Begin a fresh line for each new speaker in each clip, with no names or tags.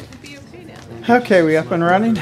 It'd be okay down there.
Okay, we up and running?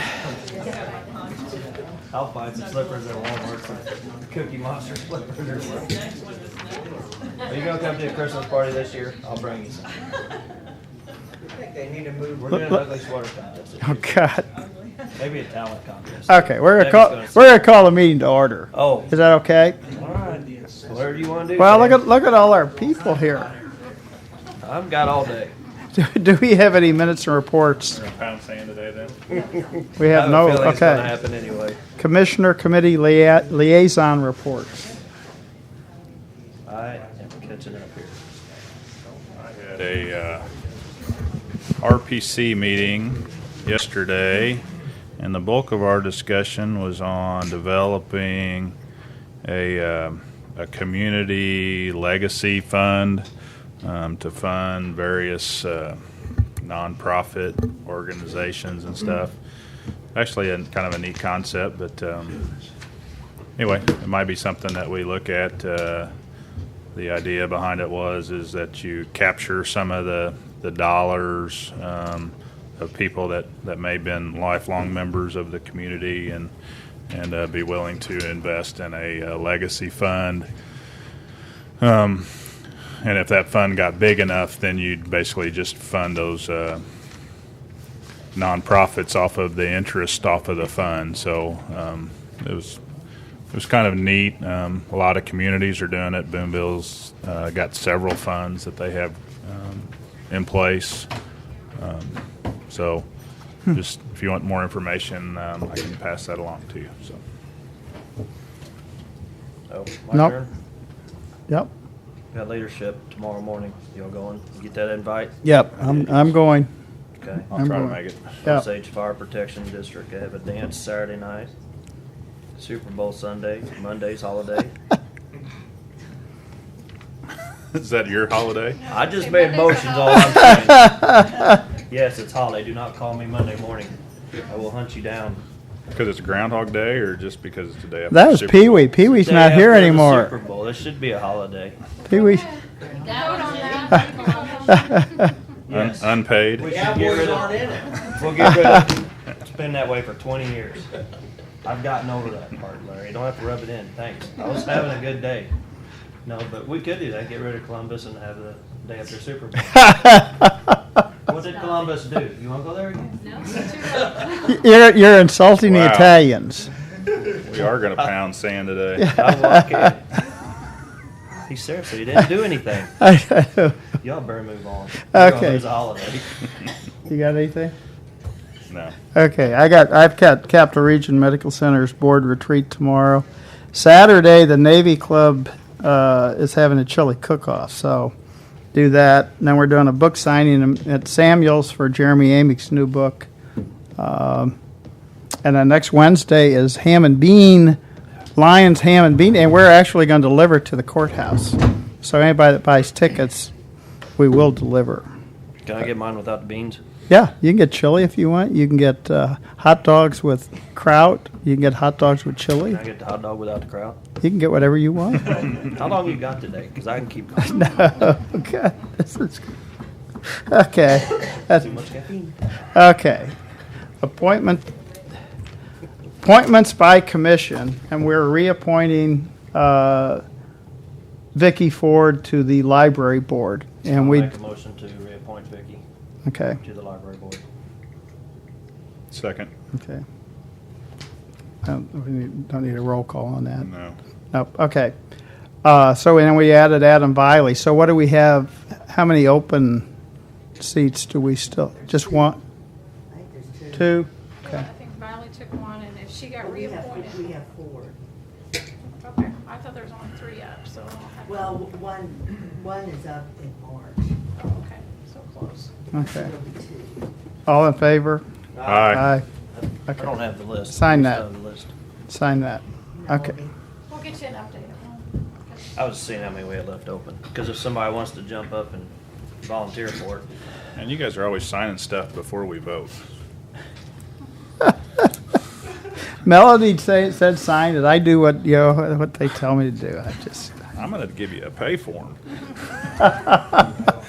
I'll find some slippers at Walmart, some Cookie Monster slippers or something. Are you gonna come to a Christmas party this year? I'll bring you some. I think they need to move, we're doing an ugly sweater contest. this
Oh,
year.
God.
Maybe a talent contest.
Okay, we're gonna
Debbie's
call,
gonna-
we're gonna call the meeting to order.
Oh,
Is that okay?
alright, whatever you wanna do.
Well, look
man.
at, look at all our people here.
I've got all day.
Do- Do we have any minutes and reports?
Gonna pound sand today then.
We
I
have
a
no,
feeling it's gonna
okay.
Happen anyway.
Commissioner Committee lia- Liaison Reports.
I am catching up here.
I had a uh, RPC meeting yesterday, and the bulk of our discussion was on developing a, um, a community legacy fund um, to fund various uh, nonprofit organizations and stuff. Actually, a kind of a neat concept, but um, anyway, it might be something that we look at. Uh, the idea behind it was is that you capture some of the the dollars um, of people that that may have been lifelong members of the community and and uh, be willing to invest in a, uh legacy fund. Um, and if that fund got big enough, then you'd basically just fund those uh, nonprofits off of the interest off of the fund. So um, it was it was kind of neat. Um, a lot of communities are doing it. Boonville's uh, got several funds that they have um, in place. Um, so, just if you want more information, um, I can pass that along to you. So,
Oh, my
Nope.
turn.
Yep,
Got leadership tomorrow morning. Y'all going? You Get that invite?
yep, I'm, I'm going.
Okay.
I'll
I'm
try
going.
to make it.
Yep.
Osage Fire Protection District. They have a dance Saturday night. Super Bowl Sunday. Monday's holiday.
Is that your holiday?
I just made motions, all I'm saying. Yes, it's holiday. Do not call me Monday morning. I will hunt you down.
Because it's Groundhog Day, or just because it's the day after
That was
Super
Pee Wee. Pee Wee's
Day
not here
after the Super
anymore.
Bowl. This should be a holiday.
Pee Wee.
Un-
Yes.
Unpaid.
We should get rid of. We'll get rid of. It's been that way for 20 years. I've gotten over that part, Larry. You don't have to rub it in. Thanks. I was having a good day. No, but we could do that. Get rid of Columbus and have the day after Super Bowl. What did Columbus do? You want to go there again?
You're, you're insulting the
Wow.
Italians.
We are going to pound sand today.
I walk in. He seriously he didn't do anything. Y'all better move on. We're gonna
Okay.
lose a holiday.
You got anything?
No.
Okay, I got, I've got Capital Region Medical Center's board retreat tomorrow. Saturday, the Navy Club, uh, is having a chili cook-off, so do that. And then we're doing a book signing at Samuel's for Jeremy Amick's new book. Um, and then next Wednesday is ham and bean, Lions ham and bean, and we're actually going to deliver to the courthouse. So anybody that buys tickets, we will deliver.
Can I get mine without the beans?
Yeah, you can get chili if you want. You can get uh, hot dogs with kraut. You can get hot dogs with chili.
Can I get the hot dog without the crowd?
You can get whatever you want.
How long you got today? Because I can keep going.
no, okay, this is okay. That's
Too much caffeine.
okay. Appointment appointments by commission, and we're reappointing uh, Vicky Ford to the library board.
I'll
And we
Make a motion to reappoint Vicky
okay,
to the library board.
Second.
okay. I don't, we need, don't need a roll call on that.
No.
Nope, okay. Uh, so and then we added Adam Viley. So what do we have, how many open seats do we still, just one? Two?
Yeah, I think Riley took one, and if she got
We have, we
reappointed,
have four.
okay, I thought there was only three up, so. I'll have-
Well, one, one is up in March.
Oh, Okay, so close.
Okay.
There'll be two.
All in favor?
Aye.
I don't have the list.
Sign
I
that.
don't have the list.
Sign that.
No,
Okay.
we-
We'll get you an update. okay?
I was seeing how many we had left open. Because if somebody wants to jump up and volunteer for it,
And you guys are always signing stuff before we vote.
Melody say, said sign it. I do what, you know, what they tell me to do. I just,
I'm going to give you a pay form.